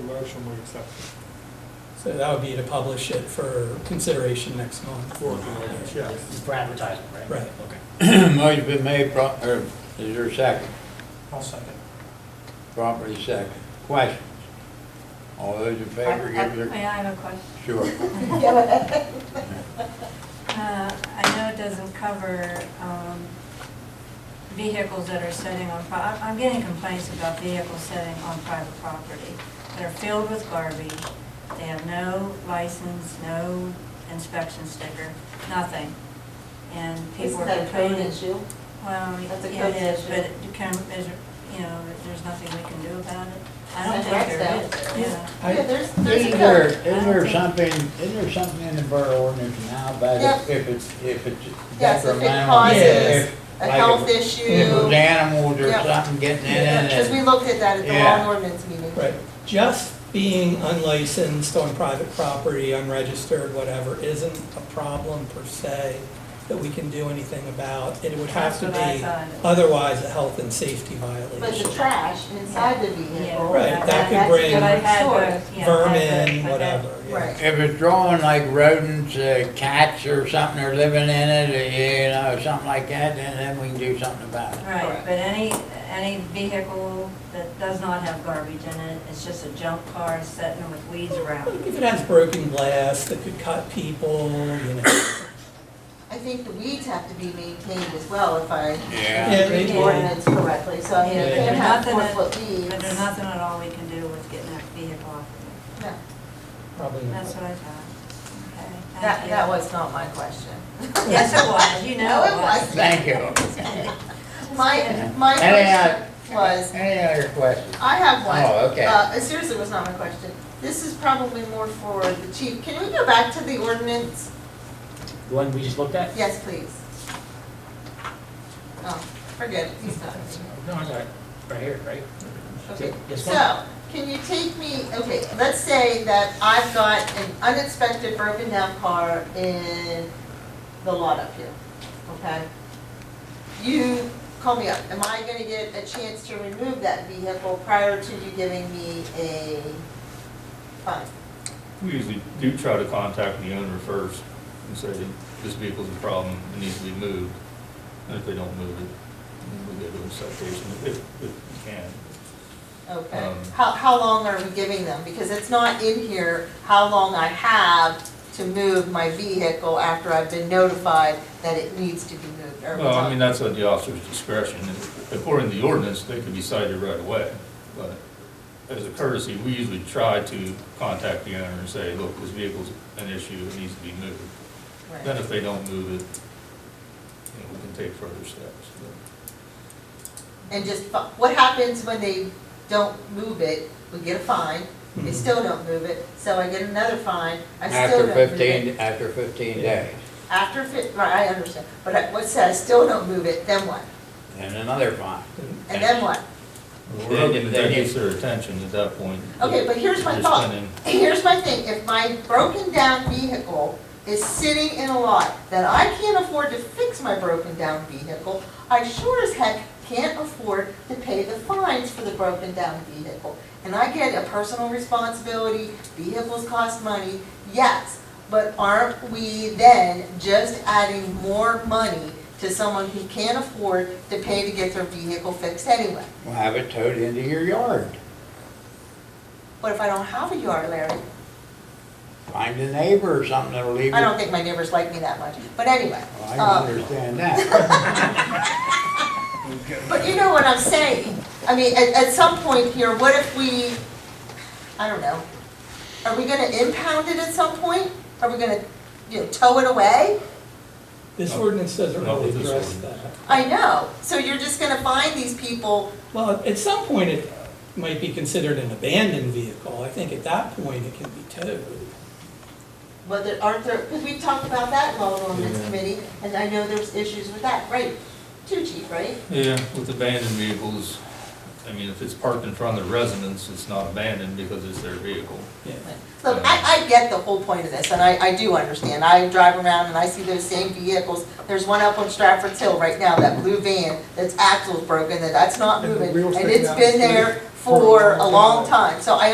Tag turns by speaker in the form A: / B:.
A: motion, we accept it.
B: So that would be to publish it for consideration next month.
A: For, the- yes,
C: For advertising, right?
B: Right.
C: Okay.
D: Motion been made, pro- or is there a second?
C: I'll second.
D: Properly second. Questions? All those in
E: I
D: favor, give their,
E: I- I have a question.
D: sure.
E: Uh, I know it doesn't cover um, vehicles that are sitting on, pri- I'm I'm getting complaints about vehicles sitting on private property that are filled with garbage. They have no license, no inspection sticker, nothing. And people
F: Isn't
E: are
F: that a code
E: complaining.
F: issue?
E: Well,
F: That's a
E: yeah, it
F: code
E: is, but
F: issue.
E: it can, is it- you know, there's nothing we can do about it. I don't
F: That's
E: think there
F: Rexdale.
E: is, yeah.
D: I-
F: Yeah, there's, there's a
D: Isn't there,
F: code.
D: isn't there something, isn't there something in the borough ordinance now about if- if it's, if it's
F: Yes, if it
D: detrimental?
F: causes
D: if-
F: A
D: like
F: health
D: if- If there's
F: issue.
D: animals or
F: Yep.
D: something getting in it
F: Because we
D: and,
F: looked at that at the
D: Yeah.
F: lawn ordinance meeting.
B: Right. Just being unlicensed on private property, unregistered, whatever, isn't a problem per se that we can do anything about. It would have to
E: That's what I
B: be
E: thought.
B: otherwise a health and safety
F: But the
B: violation.
F: trash inside the
E: Yeah.
F: vehicle.
B: Right, that could
F: that's
B: bring
F: different
E: But I've had those,
F: story.
E: yeah, I've had- I've
B: Vermin,
E: had-
B: whatever, yeah.
F: Right.
D: if it's drawing like rodents, uh, cats or something are living in it, or, you know, something like that, then, then we can do something about it.
E: Right,
F: Correct.
E: but any, any vehicle that does not have garbage in it, it's just a junk car sitting with weeds around.
B: If it has broken glass that could cut people, you know.
F: I think the weeds have to be maintained as well, if I
D: Yeah.
B: Yeah,
F: read
B: they
F: the
B: do.
F: ordinance correctly. So I mean,
B: Yeah.
F: if they have
E: Nothing
F: four
E: that-
F: foot
E: But there's
F: weeds.
E: nothing at all we can do with getting that vehicle off.
F: No,
B: Probably not.
E: That's what I thought. Okay, thank
F: That,
E: you.
F: that was not my question.
E: Yes, it was, you know it
F: No, it
E: was.
D: Thank you.
F: My, my
D: Any other-
F: question was,
D: Any other questions?
F: I have one.
D: Oh, okay.
F: Uh, it seriously was not my question. This is probably more for the chief. Can we go back to the ordinance?
C: The one we just looked at?
F: Yes, please. Oh, forget it, he's not.
C: No, I got it, right here, right?
F: Okay,
C: Yes,
F: so, can you take me, okay, let's say that I've got an unexpected broken down car in the lot up here, okay? You call me up, am I gonna get a chance to remove that vehicle prior to you giving me a fine?
G: We usually do try to contact the owner first and say, this vehicle's a problem, it needs to be moved. And if they don't move it, then we go to a citation if, if we can.
F: Okay,
G: Um,
F: how, how long are we giving them? Because it's not in here how long I have to move my vehicle after I've been notified that it needs to be moved. Are we
G: Well, I
F: talking-
G: mean, that's at the officer's discretion. And According to the ordinance, they could be cited right away. But as a courtesy, we usually try to contact the owner and say, look, this vehicle's an issue, it needs to be moved.
F: Right.
G: Then if they don't move it, you know, we can take further steps.
F: and just, fi- what happens when they don't move it? We get a fine,
G: Mm-hmm.
F: they still don't move it, so I get another fine, I still
D: After
F: don't move it.
D: fifteen, after fifteen days,
F: After fifteen. right, I understand, but I- what's that, I still don't move it, then what?
D: and another fine.
F: And then what?
G: We're hoping that that gets their attention at that point.
F: Okay, but here's my
G: Just
F: thought.
G: kinda-
F: Here's my thing, if my broken down vehicle is sitting in a lot that I can't afford to fix my broken down vehicle, I sure as heck can't afford to pay the fines for the broken down vehicle. And I get a personal responsibility, vehicles cost money, yes, but aren't we then just adding more money to someone who can't afford to pay to get their vehicle fixed anyway?
D: Well, have it towed into your yard.
F: What if I don't have a yard, Larry?
D: Find a neighbor or something that'll leave it.
F: I don't think my neighbors like me that much, but anyway.
D: Well, Oh, I
F: uh,
D: can understand that.
F: But you know what I'm saying? I mean, at, at some point here, what if we, I don't know, are we gonna impound it at some point? Are we gonna, you know, tow it away?
B: This
G: No.
B: ordinance doesn't
G: Not
B: really
G: with this
B: address that.
G: ordinance.
F: I know, so you're just gonna find these people,
B: Well, at some point, it might be considered an abandoned vehicle. I think at that point, it can be towed.
F: whether, aren't there, because we talked about that in law ordinance
G: Yeah.
F: committee, and I know there's issues with that, right? Too cheap, right?
G: Yeah, with abandoned vehicles, I mean, if it's parked in front of the residence, it's not abandoned because it's their vehicle.
B: Yeah.
F: Look, I, I get the whole point of this, and I, I do understand. I drive around and I see those same vehicles. There's one up on Stratford's Hill right now, that blue van, that's axle's broken, that that's not
A: And the
F: moving.
A: wheels
F: And
A: sticking
F: it's
A: out
F: been
A: the street
F: there for a long
A: time.
F: time. So I